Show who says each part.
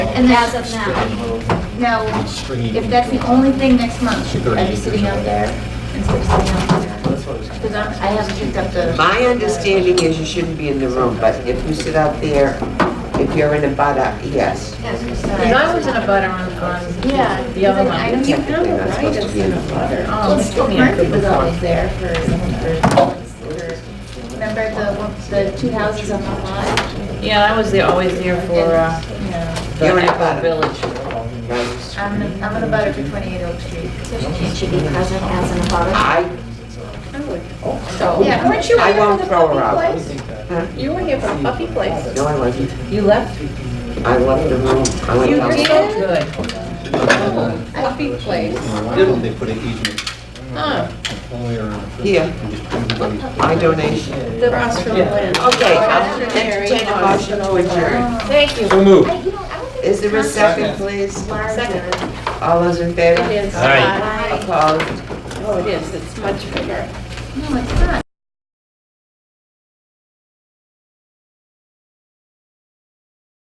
Speaker 1: And as of now,
Speaker 2: Now, if that's the only thing next month, I'd be sitting out there instead of sitting out here. Because I'm- I haven't picked up the.
Speaker 3: My understanding is you shouldn't be in the room, but if you sit out there, if you're in a butter, yes.
Speaker 4: Because I was in a butter on, on
Speaker 2: Yeah.
Speaker 4: the other one.
Speaker 2: I know
Speaker 3: You're
Speaker 2: you
Speaker 3: technically
Speaker 2: know,
Speaker 3: not
Speaker 2: right?
Speaker 3: supposed to be in a butter.
Speaker 4: Oh,
Speaker 2: Well,
Speaker 4: it's
Speaker 2: Skip
Speaker 4: me a
Speaker 2: Murphy
Speaker 4: good
Speaker 2: was
Speaker 4: one.
Speaker 2: always there for, for, remember the, one- the two houses on the lot?
Speaker 4: Yeah, I was there, always there for, uh,
Speaker 2: Yeah.
Speaker 3: You're in a
Speaker 4: the
Speaker 3: butter.
Speaker 4: village.
Speaker 3: Right.
Speaker 2: I'm, gonna- I'm gonna butter for 28 Oak Street.
Speaker 1: it should be present as an abutter.
Speaker 3: I,
Speaker 4: So,
Speaker 2: Yeah, weren't you
Speaker 3: I
Speaker 2: here for
Speaker 3: won't
Speaker 2: the
Speaker 3: throw
Speaker 2: puppy
Speaker 3: her out.
Speaker 2: place?
Speaker 4: you were here for the puppy place.
Speaker 3: No, I wasn't.
Speaker 4: You left?
Speaker 3: I left the room. I
Speaker 4: You
Speaker 3: went
Speaker 4: were
Speaker 3: out.
Speaker 4: so good. Puppy place. Oh,
Speaker 5: They put an easement,
Speaker 4: Huh.
Speaker 3: Here, my donation.
Speaker 4: The Rossville Land.
Speaker 3: Okay, I'll entertain a motion to adjourn.
Speaker 4: Thank you.
Speaker 5: So moved.
Speaker 1: I- you know, I don't think
Speaker 3: Is there a
Speaker 1: it's
Speaker 3: second, please?
Speaker 1: larger.
Speaker 3: All those in favor?
Speaker 4: It is.
Speaker 5: All right.
Speaker 4: uh,
Speaker 3: Opposed?
Speaker 4: Oh, it is. It's much bigger.
Speaker 2: No, it's not.